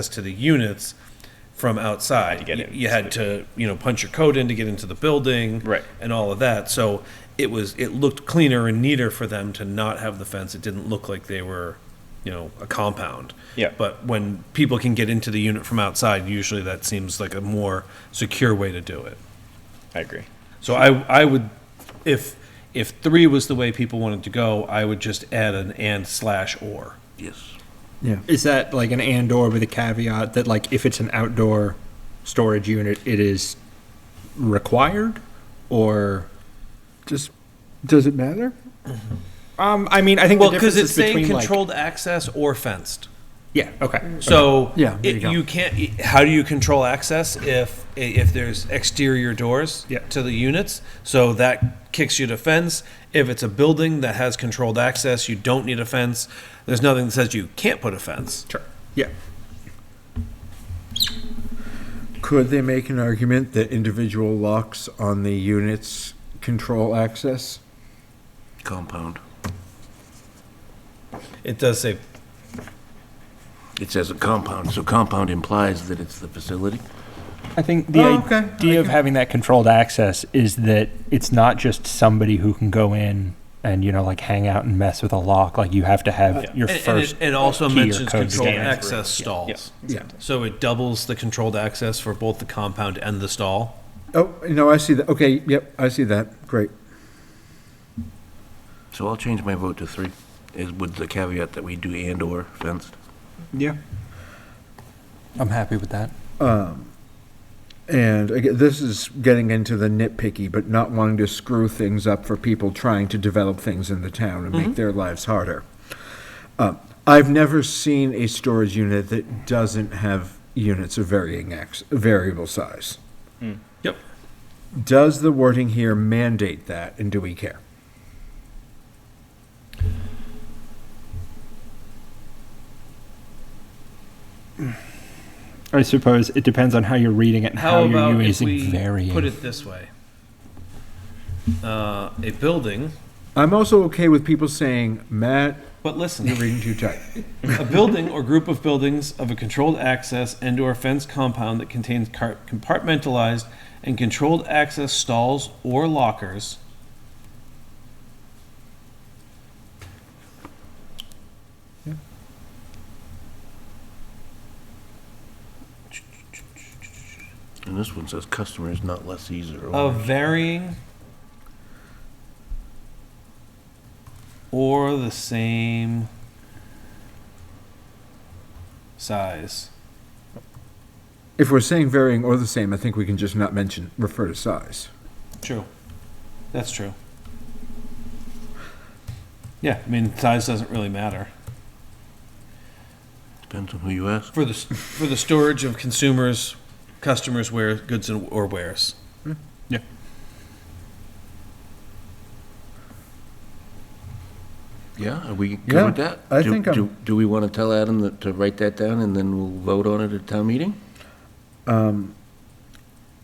access to the units from outside. to get You- in. You had to, you know, punch your code in to get into the building. Right. And all of that. So it was, it looked cleaner and neater for them to not have the fence. It didn't look like they were, you know, a compound. Yeah. But when people can get into the unit from outside, usually that seems like a more secure way to do it. I agree. So I, I would, if, if three was the way people wanted to go, I would just add an and slash or. Yes. Is that like an and or with a caveat that like if it's an outdoor storage unit, it is required? Or, Just, does it matter? um, I mean, I think Well, the because difference it's is saying between like. controlled access or fenced. Yeah, okay. So Yeah, there it, you go. you can't. How do you control access if if there's exterior doors Yeah. to the units? So that kicks you to fence. If it's a building that has controlled access, you don't need a fence. There's nothing that says you can't put a fence. Sure. Yeah. Could they make an argument that individual locks on the units control access? Compound. It does say It says a compound, so compound implies that it's the facility. I think the Oh, okay. I idea of having that controlled access is that it's not just somebody who can go in and you know like hang out and mess with a lock. Like you have to have your and, and first. it, it also key or mentions code controlled scanner. access stalls. Yeah. So it doubles the controlled access for both the compound and the stall. Oh, no, I see that. Okay, yep, I see that. Great. So I'll change my vote to three, is with the caveat that we do and/or fenced. Yeah. I'm happy with that. And again, this is getting into the nitpicky, but not wanting to screw things up for people trying to develop things in the town and make their lives harder. Uh, I've never seen a storage unit that doesn't have units of varying x variable size. Yep. Does the wording here mandate that, and do we care? I suppose it depends on how you're reading it and how, How about you're if using we varying. put it this way? Uh, a building, I'm also okay with people saying, Matt, but listen. you're reading too tight. A building or group of buildings of a controlled access and/or fenced compound that contains car- compartmentalized and controlled access stalls or lockers. And this one says customers, not lessees or Oh. of owners. varying or the same size. If we're saying varying or the same, I think we can just not mention, refer to size. True. That's true. Yeah, I mean, size doesn't really matter. Depends on who you ask. For the, s- for the storage of consumers, customers' wear, goods and, or wares. Yeah, are we Yeah, good with that? I Do- think I'm- do- Do we want to tell Adam that- to write that down and then we'll vote on it at town meeting?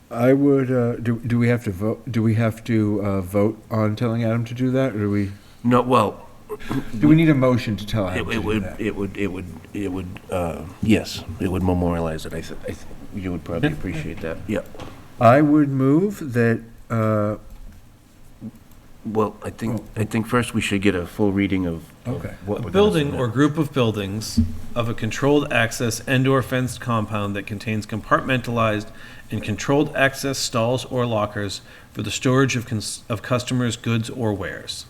I would, uh, do, do we have to vote, do we have to, uh, vote on telling Adam to do that, or do we, No, well, do we need a motion to tell It Adam to it do would, that? it would, it would, it would, uh, yes, it would memorialize it, I thi- I think, you would probably appreciate that, yeah. I would move that, uh, Well, I think, I think first we should get a full reading of of Oh. Okay. what A we're gonna building submit. or group of buildings of a controlled access and/or fenced compound that contains compartmentalized and controlled access stalls or lockers for the storage of, cons- of customers' goods or wares.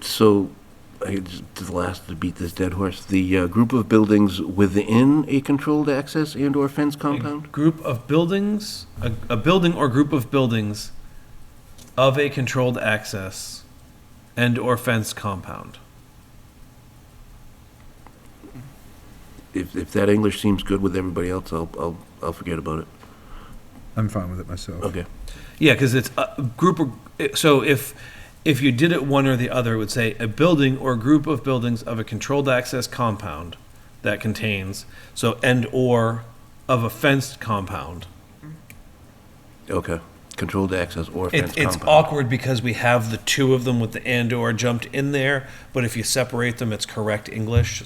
So, I just, to the last to beat this dead horse, the uh, group of buildings within a controlled access and/or fence compound? A group of buildings, a, a building or group of buildings of a controlled access and/or fenced compound. If, if that English seems good with everybody else, I'll, I'll, I'll forget about it. I'm fine with it myself. Okay. Yeah, because it's a group or so if if you did it one or the other, it would say a building or group of buildings of a controlled access compound that contains so and or of a fenced compound Okay, controlled access or fenced It, it's compound. awkward because we have the two of them with the and or jumped in there, but if you separate them, it's correct English.